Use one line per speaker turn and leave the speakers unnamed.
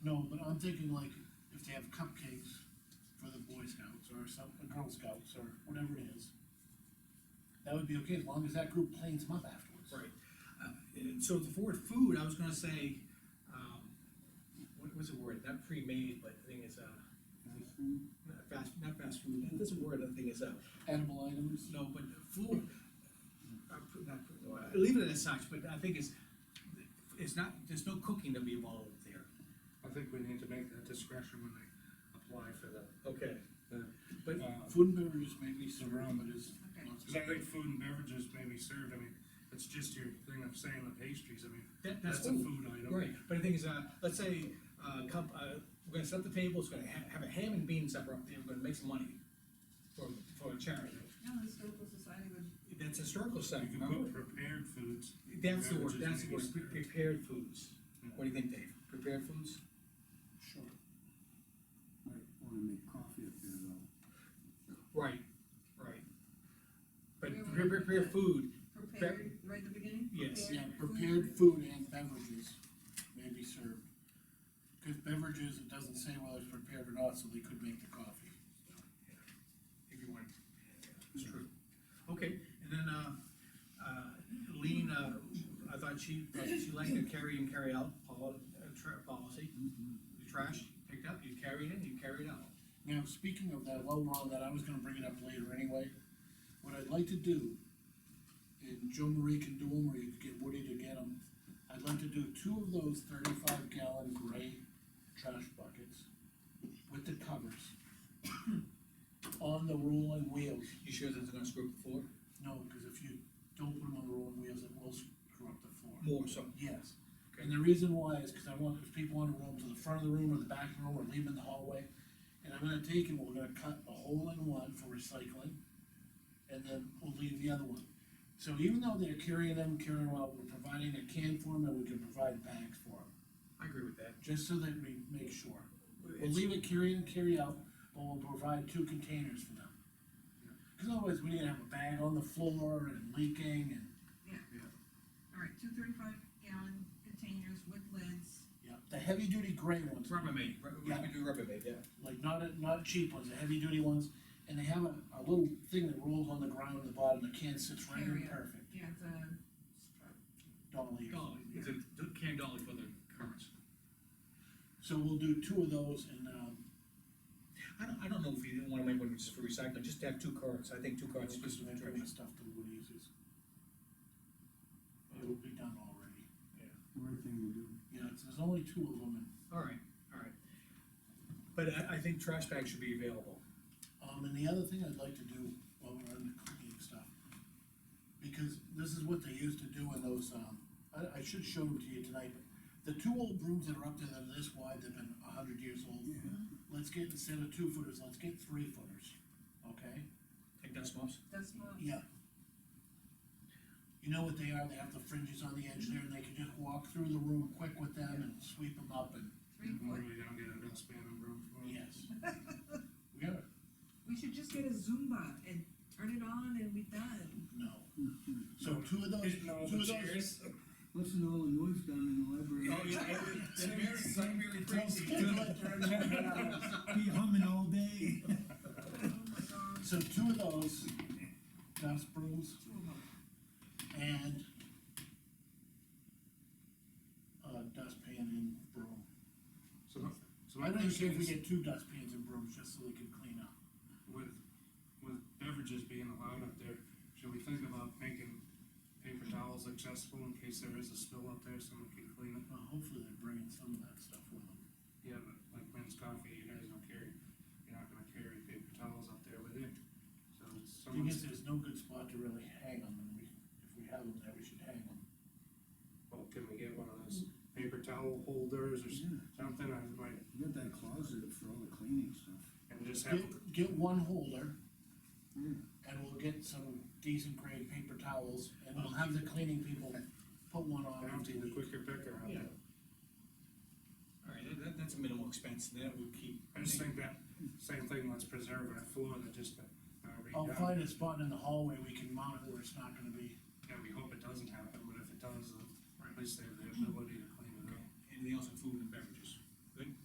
No, but I'm thinking like, if they have cupcakes for the Boy Scouts or some, or Girl Scouts or whatever it is. That would be okay, as long as that group plans them up afterwards.
Right. Uh, and so the word food, I was gonna say, um, what was the word, not pre-made, but the thing is, uh, not fast, not fast food, that's a word, the thing is, uh,
Edible items,
no, but food. uh, pr- not pr- no, uh, Leave it as such, but I think it's, it's not, there's no cooking to be involved there.
I think we need to make that discretion when they apply for the,
Okay.
the.
But-
food and beverages may be surround, but is.
Okay.
Cause I think food and beverages may be served, I mean, it's just your thing of saying the pastries, I mean,
That, that's
that's a
food.
food item.
Right, but the thing is, uh, let's say, uh, come, uh, we're gonna set the table, it's gonna ha- have a ham and bean supper up there, we're gonna make some money for, for a charity.
No, the historical society would,
That's historical
You
site,
can
remember?
put prepared foods,
That's the word,
Beverages
that's the
may be
word, pre-
served.
prepared foods. What do you think, Dave? Prepared foods?
Sure.
I wanna make coffee up there though.
Right, right. But
Yeah,
pre-
we're-
prepare food,
prepared, right at the beginning?
Yes.
Yeah, prepared food and beverages may be served. Cause beverages, it doesn't say whether it's prepared or not, so they could make the coffee.
if you want. It's true. Okay, and then, uh, uh, Lean, uh, I thought she, uh, she liked the carry and carry out pol- uh, tra- policy. The trash picked up, you carry it in, you carry it out.
Now, speaking of that, while we're on that, I was gonna bring it up later anyway. What I'd like to do, and Joe Marie can do them, or you could get Woody to get them, I'd like to do two of those thirty-five gallon gray trash buckets with the covers on the rolling wheels.
You sure that's gonna screw up the floor?
No, because if you don't put them on the rolling wheels, it will screw up the floor.
More so.
Yes, and the reason why is because I want, if people wanna roam to the front of the room or the back of the room or leave them in the hallway, and I'm gonna take and we're gonna cut a hole in one for recycling, and then we'll leave the other one. So even though they're carrying them, carrying them out, we're providing a can for them, and we can provide bags for them,
I agree with that.
just so that we make sure. We'll
It's-
leave it carry in, carry out, but we'll provide two containers for them. Cause otherwise, we're gonna have a bag on the floor and leaking and
All right, two thirty-five gallon containers with lids,
Yeah, the heavy duty gray ones,
Rubbermaid, Rub- we
Yeah.
can do Rubbermaid, yeah.
like not, a- not cheap ones, the heavy duty ones, and they have a, a little thing that rolls on the ground at the bottom, the can sits right in
Carry it.
perfect,
yeah, the, uh,
dolly.
Dolly, it's a d- can dolly for the currency.
So we'll do two of those and, um,
I don't, I don't know if you didn't wanna make one just for recycling, just to have two cards, I think two cards.
just
just
some extra stuff that Woody uses. It'll be done already,
Right thing to do.
yeah, it's- there's only two of them,
Alright, alright. But I, I think trash bags should be available.
Um, and the other thing I'd like to do while we're on the cooking stuff, because this is what they used to do in those, um, I, I should show them to you tonight, but the two old brooms that are up there that are this wide, they've been a hundred years old. Let's get, instead of two footers, let's get three footers, okay?
Take dust mops.
Oh,
that's not,
Yeah. You know what they are, they have the fringes on the edge there, and they can just walk through the room quick with them and sweep them up and,
three
Or
foot.
we don't get a dustpan and room for it.
yes. We are,
We should just get a Zumba and turn it on and be done.
no. So two of those, two of those
Listen to all the noise down in the
Oh,
library. Be humming all day.
Oh my god,
So two of those dust brooms
two of them,
and uh, dustpan and broom.
So, so
I
my
don't care
question
if we
is,
get two dustpans and brooms just so they can clean up.
with, with beverages being allowed up there, should we think about making paper towels accessible in case there is a spill up there, someone can clean it?
Well, hopefully they're bringing some of that stuff with them.
Yeah, but like men's coffee, you guys don't carry, you're not gonna carry paper towels up there with you. So
Thing
someone's,
is, there's no good spot to really hang them, and we, if we have them there, we should hang them.
well, oh, can we get one of those paper towel holders or s-
Yeah,
something, I might,
you got that closet for all the cleaning stuff.
and just have,
Get, get one holder,
Yeah.
and we'll get some decent grade paper towels, and we'll have the cleaning people put one on
down to
every
the
week.
quicker picker out there.
Alright, that- that, that's a minimal expense, and that would keep.
I just think that, same thing, let's preserve our floor that just, uh,
I'll
redone.
find a spot in the hallway we can mount it where it's not gonna be
Yeah, we hope it doesn't happen, but if it does, then at least they have the ability to clean it up.
Anything else in food?